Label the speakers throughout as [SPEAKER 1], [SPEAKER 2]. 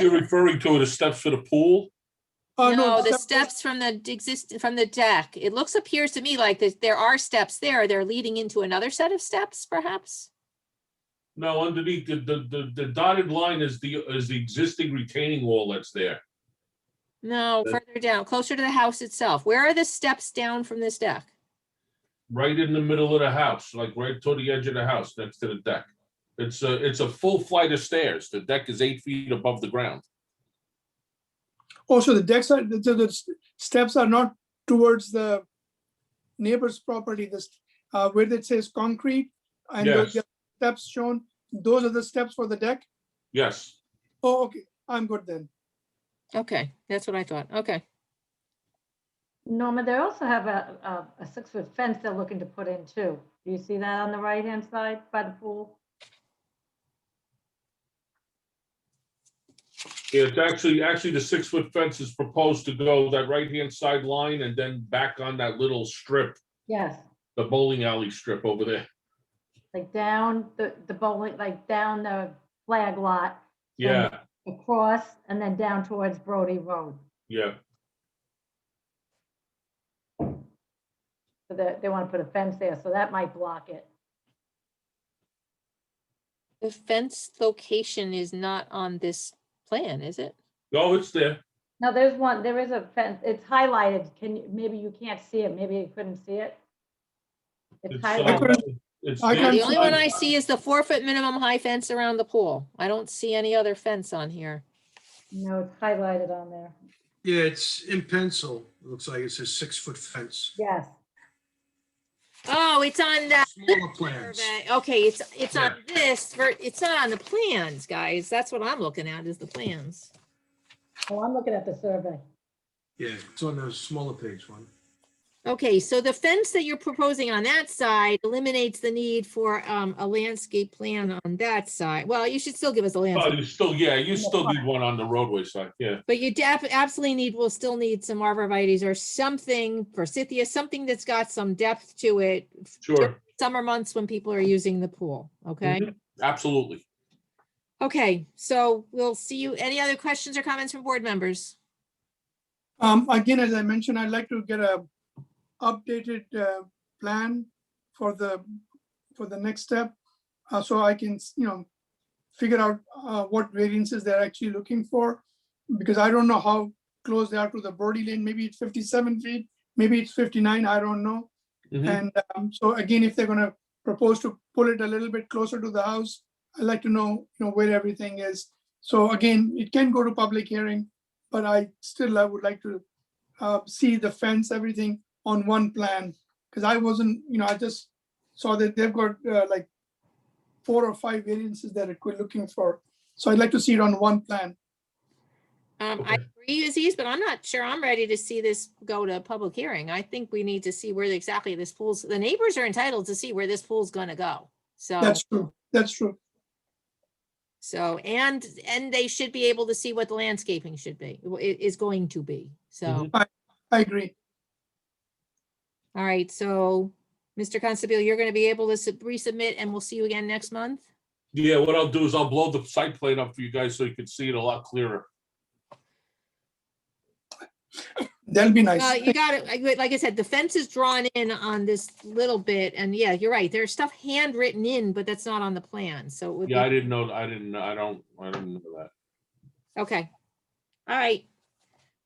[SPEAKER 1] you're referring to are the steps for the pool?
[SPEAKER 2] Oh,
[SPEAKER 3] No, the
[SPEAKER 2] step-
[SPEAKER 3] steps from the exist, from the deck. It looks, appears to me like that there are steps there. They're leading into another set of steps perhaps?
[SPEAKER 1] No, underneath the, the, the- the dotted line is the, is the existing retaining wall that's there.
[SPEAKER 3] No,
[SPEAKER 1] Uh,
[SPEAKER 3] further down, closer to the house itself. Where are the steps down from this deck?
[SPEAKER 1] Right in the middle of the house, like right toward the edge of the house, next to the deck. It's a, it's a full flight of stairs. The deck is eight feet above the ground.
[SPEAKER 2] Oh, so the decks are, the, the- the s- steps are not towards the neighbor's property, this, uh, where it says concrete and those
[SPEAKER 1] Yes.
[SPEAKER 2] steps shown, those are the steps for the deck?
[SPEAKER 1] Yes.
[SPEAKER 2] Oh, okay, I'm good then.
[SPEAKER 3] Okay, that's what I thought. Okay.
[SPEAKER 4] Norma, they also have a, a, a six-foot fence they're looking to put in too. Do you see that on the right-hand side by the pool?
[SPEAKER 1] Yeah, It's actually, actually the six foot fence is proposed to go that right hand side line and then back on that little strip,
[SPEAKER 4] Yes,
[SPEAKER 1] the bowling alley strip over there.
[SPEAKER 4] like down the, the bowling, like down the flag lot,
[SPEAKER 1] Yeah,
[SPEAKER 4] across, and then down towards Brody Road.
[SPEAKER 1] yeah.
[SPEAKER 4] So that, they want to put a fence there, so that might block it.
[SPEAKER 3] The fence location is not on this plan, is it?
[SPEAKER 1] No, Oh, it's there.
[SPEAKER 4] No, there's one, there is a fence, it's highlighted, can, you? maybe you can't see it, maybe you couldn't see it. It's
[SPEAKER 1] It's,
[SPEAKER 4] highlighted,
[SPEAKER 1] uh, it's
[SPEAKER 2] I
[SPEAKER 1] there.
[SPEAKER 2] can't
[SPEAKER 3] The only one I see is the four foot minimum high fence around the pool. I don't see any other fence on here.
[SPEAKER 4] no, it's highlighted on there,
[SPEAKER 5] Yeah, it's in pencil. It looks like it says six-foot fence.
[SPEAKER 4] yes.
[SPEAKER 3] Oh, it's on that.
[SPEAKER 5] Smaller plans.
[SPEAKER 3] survey. Okay, it's, it's on
[SPEAKER 1] Yeah.
[SPEAKER 3] this, ver- it's not on the plans, guys. That's what I'm looking at is the plans.
[SPEAKER 4] Well, I'm looking at the survey.
[SPEAKER 5] Yeah, it's on the smaller page one.
[SPEAKER 3] Okay, so the fence that you're proposing on that side eliminates the need for um, a landscape plan on that side. Well, you should still give us a
[SPEAKER 1] Oh,
[SPEAKER 3] landscape,
[SPEAKER 1] you still, yeah, you still need one on the roadway side, yeah.
[SPEAKER 3] but you def- absolutely need, will still need some arborvitae's or something, forsythia, something that's got some depth to it.
[SPEAKER 1] Sure, Mm-hmm.
[SPEAKER 3] Summer months when people are using the pool, okay?
[SPEAKER 1] absolutely.
[SPEAKER 3] Okay, so we'll see you. Any other questions or comments from board members?
[SPEAKER 2] Um, again, as I mentioned, I'd like to get a updated, uh, plan for the, for the next step. Uh, so I can, you know, figure out, uh, what variances they're actually looking for. Because I don't know how close they are to the Brody Lane, maybe it's fifty-seven feet, maybe it's fifty-nine, I don't know.
[SPEAKER 1] Mhm.
[SPEAKER 2] And um, so again, if they're gonna propose to pull it a little bit closer to the house, I'd like to know, you know, where everything is. So again, it can go to public hearing, but I still, I would like to uh, see the fence, everything on one plan. Because I wasn't, you know, I just saw that they've got uh, like four or five variances that we're looking for. So I'd like to see it on one plan.
[SPEAKER 3] Um, I agree, Aziz, but I'm not sure I'm ready to see this go to a public hearing. I think we need to see where exactly this pool's, the neighbors are entitled to see where this pool's gonna go. So,
[SPEAKER 2] That's true, that's true.
[SPEAKER 3] so, and, and they should be able to see what the landscaping should be, i- is going to be. So,
[SPEAKER 1] Mhm.
[SPEAKER 2] I agree.
[SPEAKER 3] all right, so, Mr. Constable, you're gonna be able to sub- resubmit and we'll see you again next month?
[SPEAKER 1] Yeah, what I'll do is I'll blow the site plane up for you guys so you can see it a lot clearer.
[SPEAKER 2] That'll be
[SPEAKER 3] Uh,
[SPEAKER 2] nice.
[SPEAKER 3] you got it. Like I said, the fence is drawn in on this little bit and yeah, you're right. There's stuff handwritten in, but that's not on the plan. So it would be.
[SPEAKER 1] Yeah, I didn't know, I didn't, I don't, I didn't know that.
[SPEAKER 3] Okay. All right.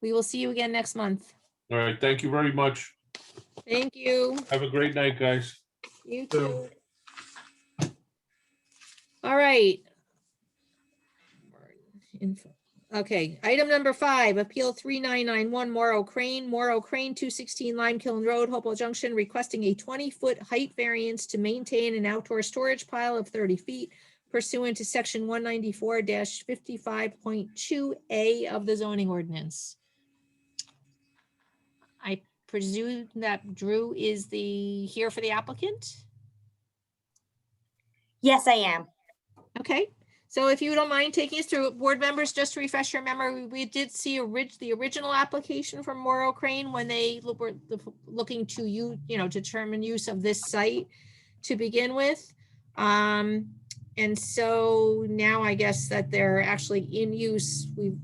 [SPEAKER 3] We will see you again next month.
[SPEAKER 1] All right, thank you very much.
[SPEAKER 3] Thank you.
[SPEAKER 1] Have a great night, guys.
[SPEAKER 3] You
[SPEAKER 5] So-
[SPEAKER 3] too. All right. Info- Okay, item number five, Appeal 3991 Morrow Crane, Morrow Crane, 216 Lime Kiln Road, Hopewell Junction, requesting a 20-foot height variance to maintain an outdoor storage pile of 30 feet pursuant to Section 194-55.2A of the zoning ordinance. I presume that Drew is the, here for the applicant?
[SPEAKER 6] Yes, I am.
[SPEAKER 3] Okay, so if you don't mind taking us through, it, board members, just to refresh your memory, we did see a rid- the original application from Morrow Crane when they lo- were the- looking to you, you know, determine use of this site to begin with. Um, And so now I guess that they're actually in use. We've